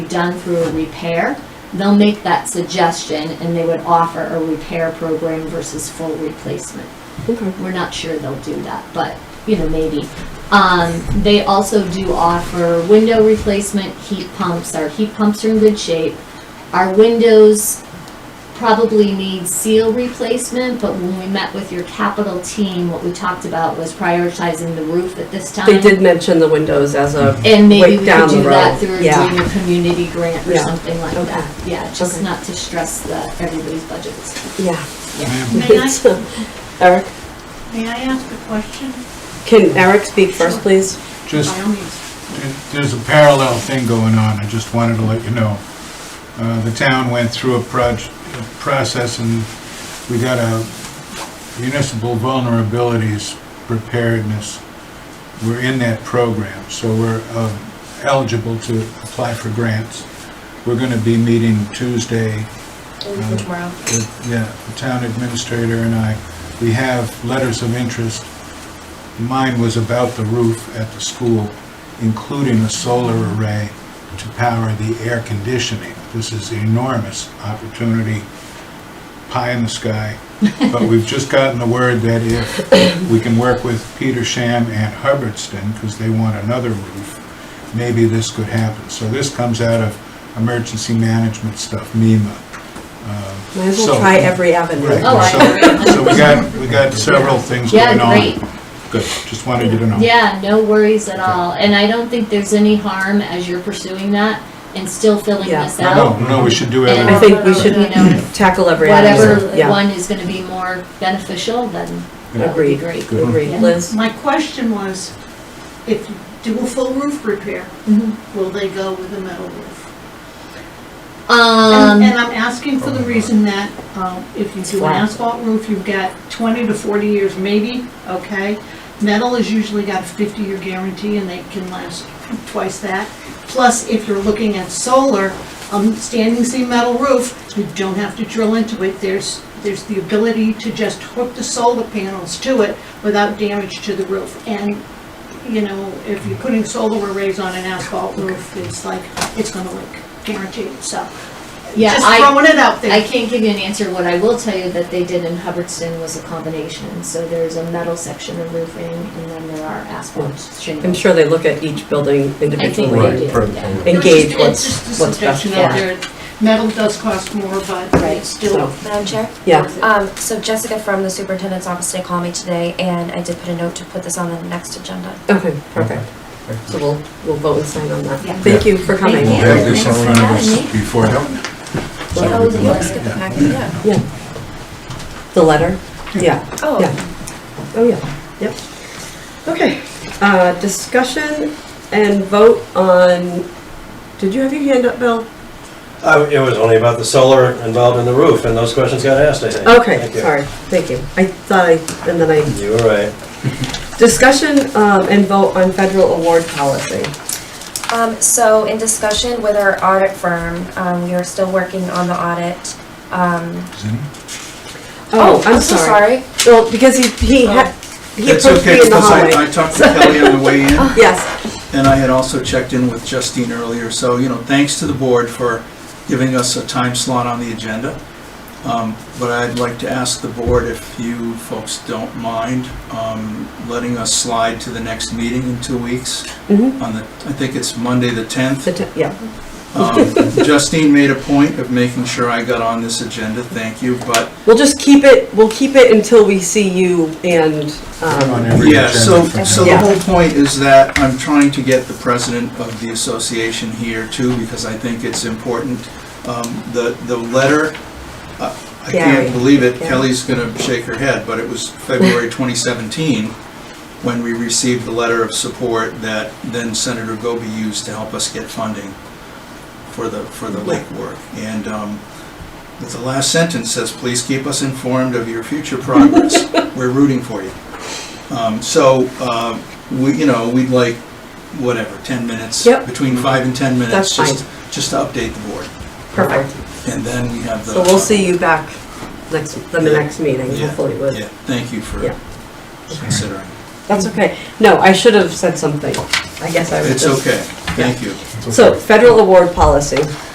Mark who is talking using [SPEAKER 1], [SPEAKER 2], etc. [SPEAKER 1] done through a repair, they'll make that suggestion and they would offer a repair program versus full replacement.
[SPEAKER 2] Okay.
[SPEAKER 1] We're not sure they'll do that, but, you know, maybe. Um, they also do offer window replacement, heat pumps. Our heat pumps are in good shape. Our windows probably need seal replacement, but when we met with your capital team, what we talked about was prioritizing the roof at this time.
[SPEAKER 2] They did mention the windows as a,
[SPEAKER 1] And maybe
[SPEAKER 2] Like
[SPEAKER 1] we could
[SPEAKER 2] down
[SPEAKER 1] do
[SPEAKER 2] the
[SPEAKER 1] that
[SPEAKER 2] road,
[SPEAKER 1] through
[SPEAKER 2] yeah.
[SPEAKER 1] doing a community grant or
[SPEAKER 2] Yeah.
[SPEAKER 1] something like
[SPEAKER 2] Okay.
[SPEAKER 1] that. Yeah, just
[SPEAKER 2] Okay.
[SPEAKER 1] not to stress the, everybody's budgets.
[SPEAKER 2] yeah.
[SPEAKER 1] Yeah.
[SPEAKER 3] May I,
[SPEAKER 2] So, Eric,
[SPEAKER 3] may I ask a question?
[SPEAKER 2] can Eric speak first, please?
[SPEAKER 4] Just,
[SPEAKER 3] By all means.
[SPEAKER 4] there's a parallel thing going on, I just wanted to let you know. Uh, The town went through a proj, a process and we got a municipal vulnerabilities preparedness. We're in that program, so we're uh, eligible to apply for grants. We're gonna be meeting Tuesday uh,
[SPEAKER 3] Tomorrow.
[SPEAKER 4] the- yeah, the town administrator and I, we have letters of interest. Mine was about the roof at the school, including a solar array to power the air conditioning. This is enormous opportunity, pie in the sky. But we've just gotten the word that if we can work with Petersham and Hubbardston, because they want another roof, maybe this could happen. So this comes out of emergency management stuff, MEMA. Um,
[SPEAKER 2] Might as well
[SPEAKER 4] so-
[SPEAKER 2] try every avenue.
[SPEAKER 4] Right,
[SPEAKER 1] Oh, I
[SPEAKER 4] so- So we got, we got several things
[SPEAKER 1] Yeah,
[SPEAKER 4] going on.
[SPEAKER 1] great.
[SPEAKER 4] Good, just wanted you to know.
[SPEAKER 1] Yeah, no worries at all. And I don't think there's any harm as you're pursuing that and still filling
[SPEAKER 2] Yeah.
[SPEAKER 1] this
[SPEAKER 4] No,
[SPEAKER 1] out.
[SPEAKER 4] no, no, we should do
[SPEAKER 1] And
[SPEAKER 2] I
[SPEAKER 4] everything.
[SPEAKER 2] think we should
[SPEAKER 1] You know,
[SPEAKER 2] tackle every avenue.
[SPEAKER 1] Whatever
[SPEAKER 2] Yeah,
[SPEAKER 1] one is gonna be more beneficial, then that would be
[SPEAKER 2] Agreed.
[SPEAKER 1] great.
[SPEAKER 4] Good.
[SPEAKER 2] agree.
[SPEAKER 1] Yeah.
[SPEAKER 2] Liz?
[SPEAKER 3] My question was, if you do a full roof repair,
[SPEAKER 1] Mhm.
[SPEAKER 3] will they go with a metal roof? And and
[SPEAKER 1] Um,
[SPEAKER 3] I'm asking for the reason that, um, if you do an
[SPEAKER 2] flat.
[SPEAKER 3] asphalt roof, you've got twenty to forty years maybe, okay? Metal has usually got a fifty-year guarantee and they can last twice that. Plus, if you're looking at solar, um, standing seam metal roof, you don't have to drill into it. There's, there's the ability to just hook the solar panels to it without damage to the roof. And, you know, if you're putting solar arrays on an asphalt roof, it's like, it's gonna leak, guaranteed, so.
[SPEAKER 1] yeah,
[SPEAKER 3] Just
[SPEAKER 1] I,
[SPEAKER 3] throwing it out there.
[SPEAKER 1] I can't give you an answer. What I will tell you that they did in Hubbardston was a combination. So there's a metal section of roofing and then there are asphalt
[SPEAKER 2] I'm
[SPEAKER 1] shingles.
[SPEAKER 2] sure they look at each building
[SPEAKER 1] Right.
[SPEAKER 2] individually.
[SPEAKER 1] do,
[SPEAKER 5] perfect.
[SPEAKER 1] yeah.
[SPEAKER 5] Right.
[SPEAKER 2] engage
[SPEAKER 3] It's just-
[SPEAKER 2] what's-
[SPEAKER 3] it's just a
[SPEAKER 2] what's best
[SPEAKER 3] suggestion out
[SPEAKER 1] for
[SPEAKER 3] there. Metal does cost more, but
[SPEAKER 1] Right,
[SPEAKER 3] it's still.
[SPEAKER 2] so.
[SPEAKER 6] Madam Chair?
[SPEAKER 2] Yeah.
[SPEAKER 6] Um, so Jessica from the superintendent's office did call me today, and I did put a note to put this on the next agenda.
[SPEAKER 2] Okay, perfect. So we'll, we'll vote and sign on that.
[SPEAKER 6] Yeah.
[SPEAKER 2] Thank you for coming.
[SPEAKER 5] We'll have this in front of us
[SPEAKER 6] Thank
[SPEAKER 5] before,
[SPEAKER 6] Oh, you guys get the packet, yeah.
[SPEAKER 2] Yeah. The letter? Yeah.
[SPEAKER 6] Oh.
[SPEAKER 2] Yeah. Oh, yeah, yep. Okay, uh, discussion and vote on, did you have your hand up, Bill?
[SPEAKER 7] I- It was only about the solar involved in the roof, and those questions got asked, I think.
[SPEAKER 2] Okay,
[SPEAKER 7] Thank you.
[SPEAKER 2] sorry, thank you. I thought I, and then I,
[SPEAKER 7] You were right.
[SPEAKER 2] discussion, um, and vote on federal award policy.
[SPEAKER 6] Um, so in discussion with our audit firm, um, we are still working on the audit. Um,
[SPEAKER 2] Oh, I'm
[SPEAKER 6] so
[SPEAKER 2] sorry. Oh.
[SPEAKER 6] sorry.
[SPEAKER 2] Well, because he, he had, he
[SPEAKER 5] It's
[SPEAKER 2] approached
[SPEAKER 5] okay,
[SPEAKER 2] me in the
[SPEAKER 5] because I, I
[SPEAKER 2] hallway.
[SPEAKER 5] talked to Kelly on the way in,
[SPEAKER 2] Yes,
[SPEAKER 5] and I had also checked in with Justine earlier, so, you know, thanks to the board for giving us a time slot on the agenda. Um, But I'd like to ask the board if you folks don't mind um, letting us slide to the next meeting in two weeks
[SPEAKER 2] mhm,
[SPEAKER 5] on the, I think it's Monday, the 10th.
[SPEAKER 2] the te- yeah,
[SPEAKER 5] Um, Justine made a point of making sure I got on this agenda, thank you, but
[SPEAKER 2] we'll just keep it, we'll keep it until we see you and,
[SPEAKER 4] On
[SPEAKER 2] um,
[SPEAKER 4] every
[SPEAKER 5] Yeah, so,
[SPEAKER 4] agenda for
[SPEAKER 5] so
[SPEAKER 4] now.
[SPEAKER 5] the whole point is that I'm trying to get the president of the association here too, because I think it's important. Um, The, the letter, uh, I
[SPEAKER 2] Gary.
[SPEAKER 5] can't believe it,
[SPEAKER 2] Gary.
[SPEAKER 5] Kelly's gonna shake her head, but it was February 2017 when we received the letter of support that then Senator Goby used to help us get funding for the, for the lake work. And um, the last sentence says, "Please keep us informed of your future progress. We're rooting for you." Um, So, uh, we, you know, we'd like, whatever, 10 minutes?
[SPEAKER 2] Yep.
[SPEAKER 5] Between five and 10
[SPEAKER 2] That's
[SPEAKER 5] minutes, just, just to update the board.
[SPEAKER 2] perfect.
[SPEAKER 5] And then we have the...
[SPEAKER 2] So we'll see you back next, in the next meeting,
[SPEAKER 5] Yeah,
[SPEAKER 2] hopefully with.
[SPEAKER 5] Yeah, thank you for
[SPEAKER 2] Yeah.
[SPEAKER 5] considering.
[SPEAKER 2] That's okay. No, I should have said something. I guess I was
[SPEAKER 5] It's
[SPEAKER 2] just.
[SPEAKER 5] okay. Thank you.
[SPEAKER 2] So federal award policy.